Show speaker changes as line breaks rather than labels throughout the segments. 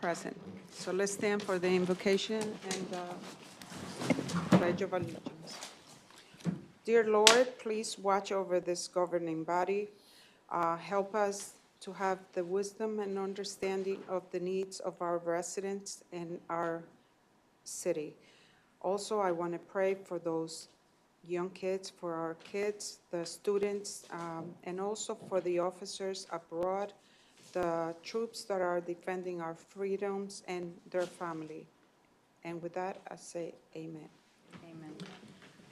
present. So let's stand for the invocation and uh, pledge of allegiance. Dear Lord, please watch over this governing body. Uh, Help us to have the wisdom and understanding of the needs of our residents and our city. Also, I want to pray for those young kids, for our kids, the students, um, and also for the officers abroad, the troops that are defending our freedoms and their family. And with that, I say amen. Amen.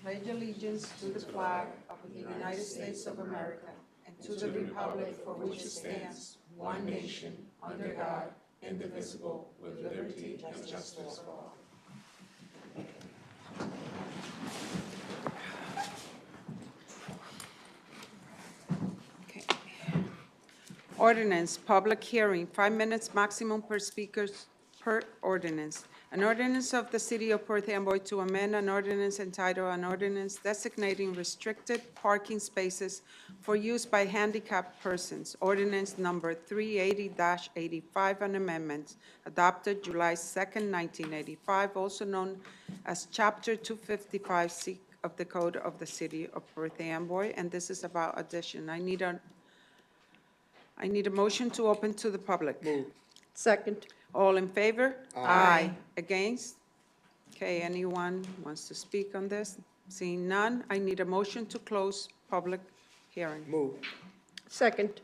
Pledge allegiance to the flag of the United States of America and to the republic for which it stands, one nation, under God, indivisible, with liberty and justice for all. Okay. Ordinance, public hearing, five minutes maximum per speakers per ordinance. An ordinance of the City of Perth Amboy to amend an ordinance entitled an ordinance designating restricted parking spaces for use by handicapped persons. Ordinance number 380-85, an amendment adopted July 2nd, 1985, also known as Chapter 255C of the Code of the City of Perth Amboy, and this is about addition. I need a I need a motion to open to the public.
Second.
All in favor? Aye. Against? Okay, anyone wants to speak on this? Seeing none, I need a motion to close public hearing.
Move.
Second.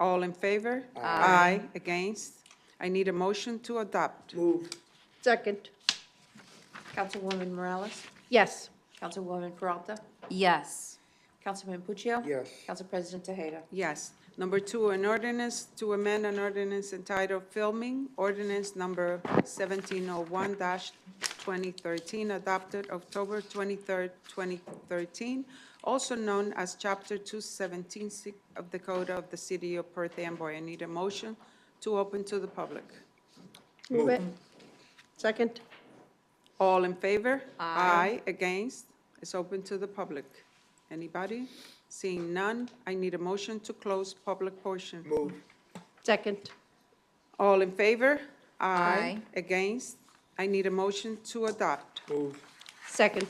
All in favor? Aye. Against? I need a motion to adopt.
Move.
Second.
Councilwoman Morales?
Yes.
Councilwoman Peralta?
Yes.
Councilman Puccio?
Yes.
Council President Tejeda?
Yes. Number two, an ordinance to amend an ordinance entitled Filming, ordinance number 1701-2013, adopted October 23rd, 2013, also known as Chapter 217 si- of the Code of the City of Perth Amboy. I need a motion to open to the public.
Move it. Second.
All in favor? Aye. Against? It's open to the public. Anybody? Seeing none, I need a motion to close public portion.
Move.
Second.
All in favor?
Aye.
Against? I need a motion to adopt.
Move.
Second.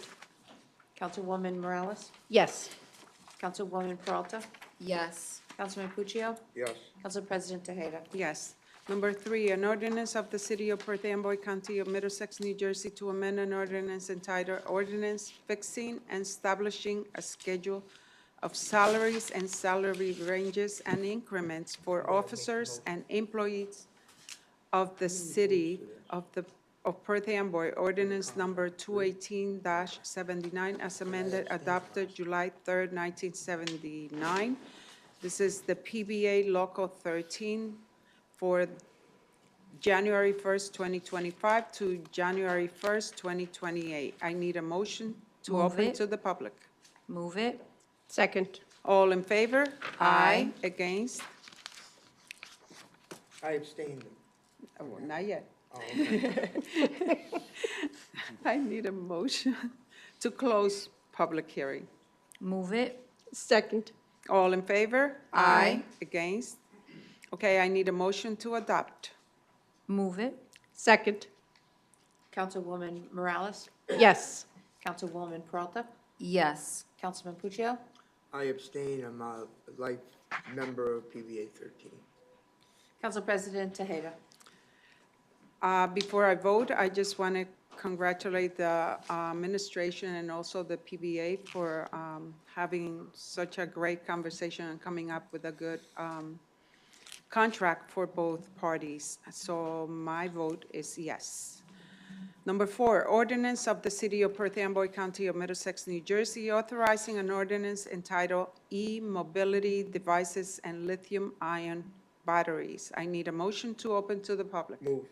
Councilwoman Morales?
Yes.
Councilwoman Peralta?
Yes.
Councilman Puccio?
Yes.
Council President Tejeda?
Yes. Number three, an ordinance of the City of Perth Amboy County of Middlesex, New Jersey to amend an ordinance entitled Ordinance Fixing and Establishing a Schedule of Salaries and Salary Ranges and Increments for Officers and Employees of the City of the, of Perth Amboy, ordinance number 218-79, as amended, adopted July 3rd, 1979. This is the PBA Local 13 for January 1st, 2025 to January 1st, 2028. I need a motion to
Move
open
it.
to the public.
Move it.
Second.
All in favor?
Aye.
Against?
I abstained.
Oh, Not yet.
Oh, okay.
I need a motion to close public hearing.
Move it.
Second.
All in favor?
Aye.
Against? Okay, I need a motion to adopt.
Move it.
Second.
Councilwoman Morales?
Yes.
Councilwoman Peralta?
Yes.
Councilman Puccio?
I abstain. I'm a life member of PBA thirteen.
Council President Tejeda?
Uh, Before I vote, I just want to congratulate the uh, administration and also the PBA for um, having such a great conversation and coming up with a good um, contract for both parties. So my vote is yes. Number four, ordinance of the City of Perth Amboy County of Middlesex, New Jersey, authorizing an ordinance entitled E-Mobility Devices and Lithium-Ion Batteries. I need a motion to open to the public.
Move.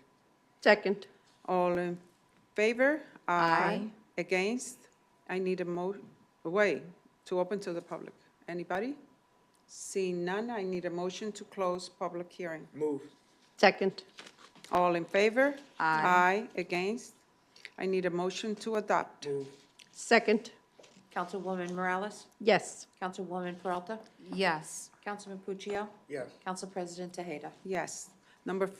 Second.
All in favor?
Aye.
Against? I need a mo, a way to open to the public. Anybody? Seeing none, I need a motion to close public hearing.
Move.
Second.
All in favor?
Aye.
Aye. Against? I need a motion to adopt.
Move.
Second.
Councilwoman Morales?
Yes.
Councilwoman Peralta?
Yes.
Councilman Puccio?
Yes.
Council President Tejeda?
Yes. Number